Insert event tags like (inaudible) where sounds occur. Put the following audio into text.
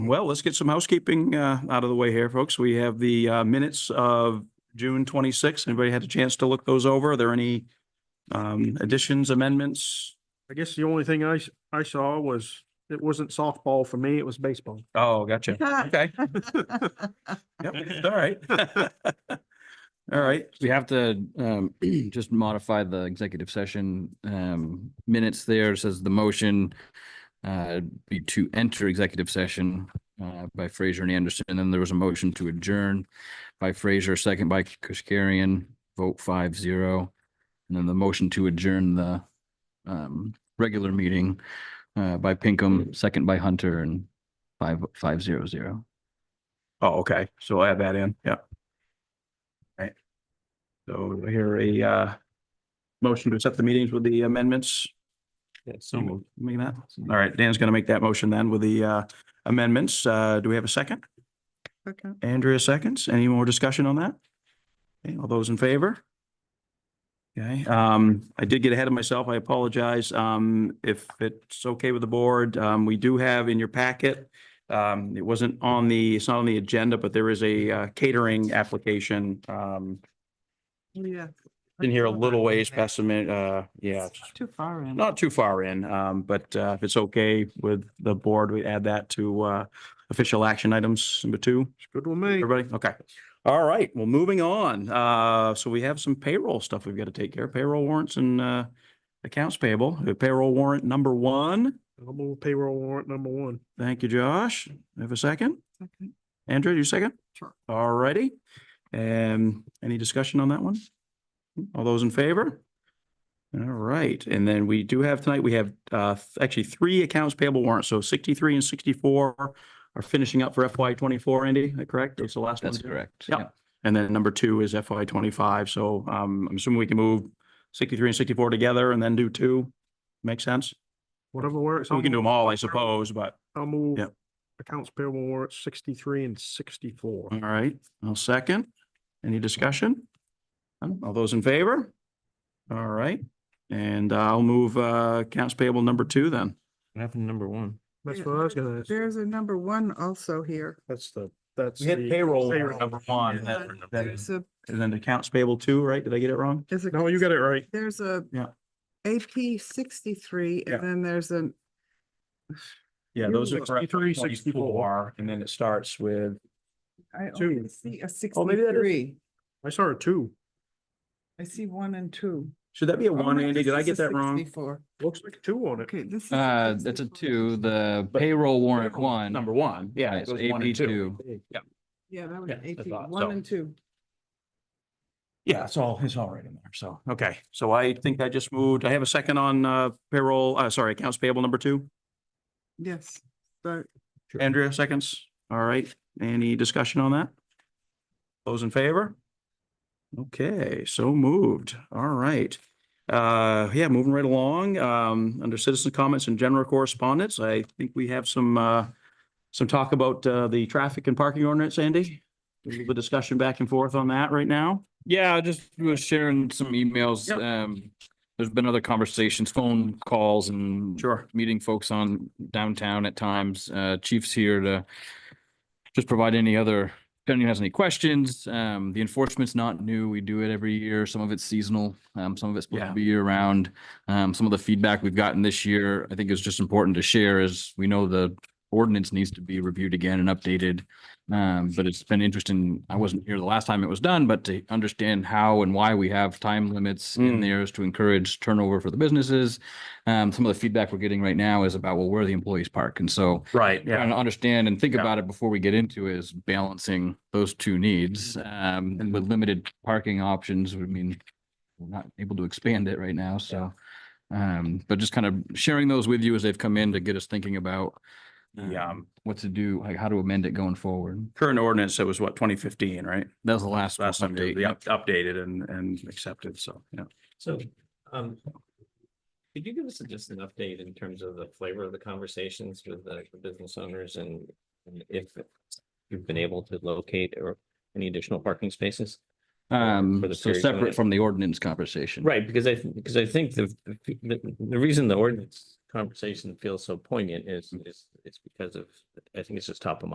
well, let's get some housekeeping uh, out of the way here, folks. We have the uh, minutes of June 26th. Anybody had a chance to look those over? Are there any um, additions, amendments? I guess the only thing I, s- I saw was, it wasn't softball for me, it was baseball. Oh, gotcha. Okay. Yep, it's all right. All right. We have to um (clears throat) just modify the executive session um minutes there. It Says the motion uh be to enter executive session uh by Fraser and Anderson. And then there was a motion to adjourn by Fraser, second by Kuskarian, vote five zero. And then the motion to adjourn the um regular meeting uh by Pinkham, second by Hunter and five five zero zero. Oh, okay. So add that in. Yeah. Right. So do I hear a uh, motion to accept the meetings with the amendments. So moved. Make that. All right. Dan's going to make that motion then with the uh, amendments. Uh, Do we have a second? Second. Andrea seconds. Any more discussion on that? Okay, all those in favor? Okay, um, I did get ahead of myself. I apologize. Um, if it's okay with the board, um, we do have in your packet. Um, it wasn't on the, it's not on the agenda, but there is a uh, catering application, um, Yeah. in here a little ways past the minute, uh, yeah, It's not Too far in. not too far in, um, but, uh, if it's okay with the board, we add that to, uh, official action items number two. It's good with me. Everybody, okay. All right, well, moving on. Uh, so we have some payroll stuff we've got to take care of, payroll warrants and, uh, accounts payable. Payroll warrant number one. I'll move payroll warrant number one. Thank you, Josh. Have a second? Second. Andrew, you second? Sure. All righty. Um, any discussion on that one? All those in favor? All right, and then we do have tonight, we have uh th- actually three accounts payable warrants, so sixty-three and sixty-four are finishing up for FY twenty-four, Andy, is that correct? That's the last one. That's correct. Yep. And then number two is FY twenty-five, so um I'm assuming we can move sixty-three and sixty-four together and then do two. Make sense? Whatever works. So we I'll can do move- them all, I suppose, but I'll move Yep. accounts payable warrant sixty-three and sixty-four. All right, I'll second. Any discussion? None? All those in favor? All right, and I'll move uh accounts payable number two then. What happened to number one? That's what I was gonna, ask. There's a number one also here. that's the, that's. the- warrant number one, and but then- then- There's a, and then accounts payable two, right? Did I get it wrong? there's No, a, you got it right. there's a Yeah. AP sixty-three Yeah. and then there's an Yeah, those are correct. 63, 64. And then it starts with, I Two. only see a Oh, maybe that is- sixty-three. I saw a two. I see one and two. should that be a Oh, one, no, Andy? this Did I is a get that wrong? 64. Looks like a two on it. Okay, this is. Uh, that's a 64. two, the payroll warrant Payroll one. Number one, yeah. Right, it so goes one and AP two. Yeah, that was Yeah, I AP, thought so. one and two. Yeah, it's all, it's all right in there, so, okay, so I think I just moved, I have a second on uh payroll, uh, sorry, accounts payable number two. Yes, but Andrea seconds. All right. Any discussion on that? Those in favor? Okay, so moved. All right. Uh, yeah, moving right along, um, under citizen comments and general correspondence, I think we have some, uh, some talk about, uh, the traffic and parking ordinance, Andy. A little bit of discussion back and forth on that right now. Yeah, I just was sharing some emails. Yep. Um, there's been other conversations, phone calls and Sure. meeting folks on downtown at times. Uh, chief's here to just provide any other, if anyone has any questions. Um, the enforcement's not new. We do it every year. Some of it's seasonal. Um, some of it's supposed Yeah. to be year round. Um, some of the feedback we've gotten this year, I think is just important to share is we know the ordinance needs to be reviewed again and updated. Um, but it's been interesting. I wasn't here the last time it was done, but to understand how and why we have time limits in Mm. there is to encourage turnover for the businesses. Um, some of the feedback we're getting right now is about, well, where the employees park. And so Right, trying to understand and think Yeah. about it before we get into is balancing those two needs. Mm-hmm. Um, and with limited parking options, I mean, we're not able to expand it right now, so. Um, but just kind of sharing those with you as they've come in to get us thinking about Yeah, um, what to do, like how to amend it going forward. Current ordinance, that was what, twenty fifteen, right? That was the last Last time they update. they up- updated and, and accepted, so, yeah. So, um. Could you give us just an update in terms of the flavor of the conversations with the business owners and and if you've been able to locate or any additional parking spaces? for Um, the so period when separate it- from the ordinance conversation. Right, because I, because I think the, the, the reason the ordinance conversation feels so poignant is, is, it's because of, I think it's just top of mind.